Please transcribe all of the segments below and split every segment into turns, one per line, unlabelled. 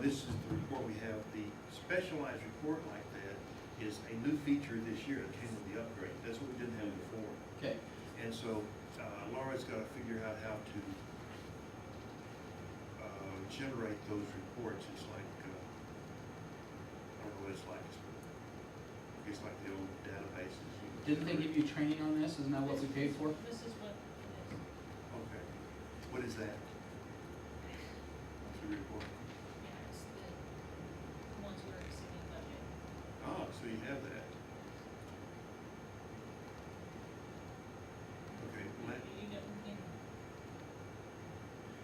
this is the report we have, the specialized report like that is a new feature this year that came with the upgrade, that's what we didn't have before.
Okay,
And so uh, Laura's got to figure out how to uh, generate those reports. It's like, uh, I don't know what it's like, It's- it's like the old databases. you know.
didn't they give you training on this? Isn't that what we paid for?
This is what it is.
Okay. What is that? What's the report?
Yeah, it's the ones we're exceeding budget.
Oh, so you have that. Okay, let,
You know, in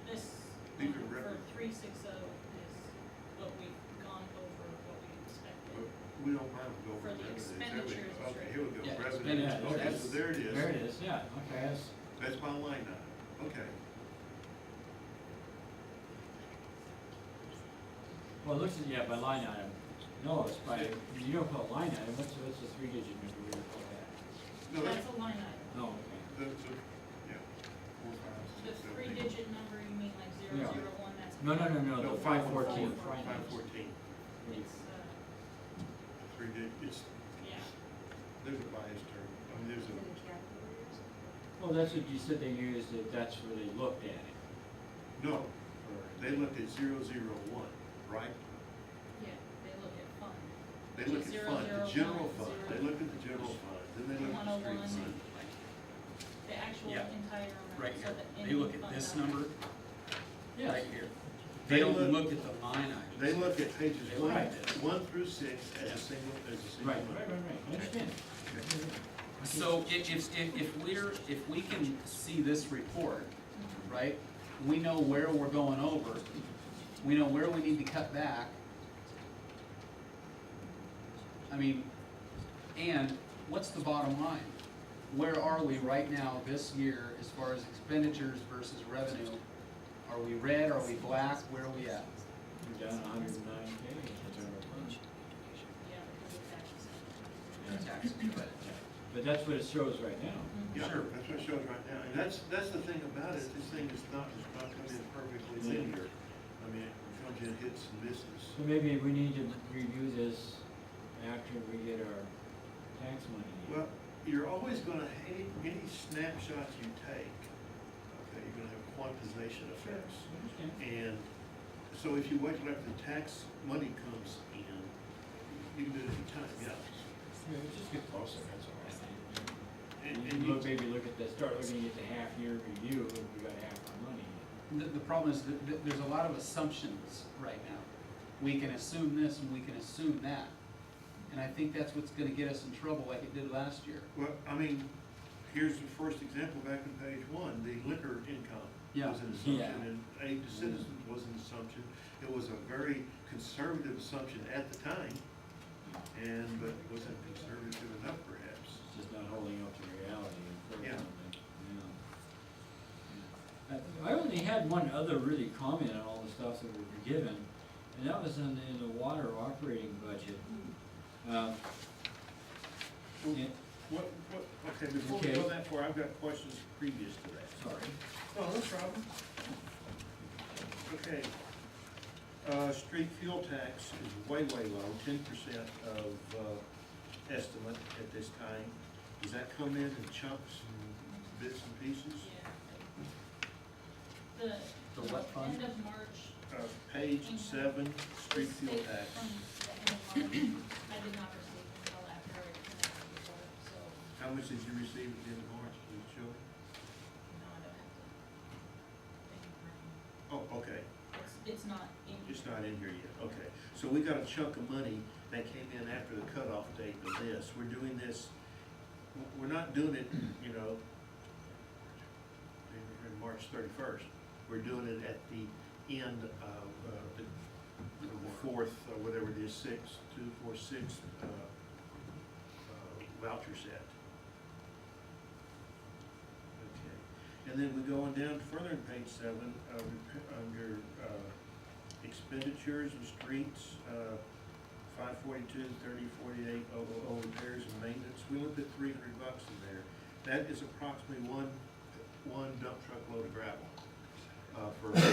this,
These are
um, for
reference.
three six oh is what we've gone over, what we expected.
we don't mind if we go
For
over
the
revenues. There we go.
expenditures, it's
Okay,
right.
here we go.
Yeah,
Revenues.
expenditures,
Okay, so
that's-
there it is.
There it is, yeah, okay, that's,
That's my line item, okay.
Well, it looks, at- yeah, by line item. No, it's by, you don't put line item, what's, what's the three digit number we would call that?
No, that's,
That's a line item.
No, okay.
that's, a- yeah, four, five,
The
six, seven, eight.
three-digit number, you mean like zero
Yeah.
zero one, that's.
No, no, no, no,
No,
the five
one
fourteen.
four, Five fourteen,
It's, uh,
three digit, it's,
yeah,
there's a bias term, I mean, there's a,
Well, that's what you said they used, that that's where they looked at it.
no,
or-
they looked at zero, zero, one, right?
yeah, they look at fund.
They looked at
Zero,
fund,
zero,
the general
one,
fund, they
zero.
looked at the general fund, then they looked at the street
101.
fund.
The actual
Yeah.
entire amount.
Right
so
here,
that
they
any
look at
fund
this
balance-
number,
Yes,
right here. They don't look at the line items.
They look at pages
They
one,
look at this.
one through six as a single, as a single.
right, right, right,
line.
right, I understand.
So if, if, if- if we're, if we can see this report, right, we know where we're going over, we know where we need to cut back. I mean, and what's the bottom line? Where are we right now this year as far as expenditures versus revenue? Are we red, are we black, where are we at?
We're down hundred and nine pages, that's our report.
Yeah, because it's actually.
Taxes, but-
but that's what it shows right now.
Yeah,
Sure.
that's what it shows right now, and that's, that's the thing about it, this thing is not, is not coming in perfectly linear. I mean, it comes in hits and misses.
So maybe we need to review this after we get our tax money. in.
Well, you're always gonna, any, any snapshot you take, okay, you're gonna have quantization effects.
I understand.
And so if you wait till after the tax money comes in, you can do it any time, yeah.
Yeah, we just get closer, that's all I think.
And,
And
and
you look,
you,
maybe look at the, start looking at the half-year review, and we got half our money.
The, the problem is that th- there's a lot of assumptions right now. We can assume this and we can assume that. And I think that's what's gonna get us in trouble like it did last year.
well, I mean, here's the first example back on page one, the liquor income
Yeah.
was an assumption,
Yeah.
and aid to citizens was an assumption. It was a very conservative assumption at the time, and, but wasn't conservative enough perhaps.
It's just not holding up to reality, unfortunately. Yeah. I I only had one other really comment on all the stuff that we were given, and that was in, in the water operating budget. Um, yeah,
What, what, okay, before we
Okay.
go that far, I've got questions previous to that.
Sorry.
Oh, No, no problem. Okay. Uh, street fuel tax is way, way low, ten percent of, uh, estimate at this time. Does that come in in chunks and bits and pieces?
Yeah. The.
The what fund?
End of March.
Uh, page seven, street
this
fuel
date
tax.
from the end of March, I did not receive until after I connected the report, so
How much did you receive at the end of March, did it show?
no, I don't have to. think about
Oh, okay,
it. It's, it's not in.
it's not in here yet, okay. So we got a chunk of money that came in after the cutoff date of this. We're doing this, we're not doing it, you know, in March thirty-first. We're doing it at the end of, uh, the the fourth, or whatever it is, sixth, two, four, six, uh, uh, voucher set. Okay, and then we go on down further in page seven, uh, rep- under, uh, expenditures and streets, uh, five forty-two, thirty, forty-eight, oh, oh, oh, repairs and maintenance, we looked at three hundred bucks in there. That is approximately one, one dump truck load of gravel, uh, for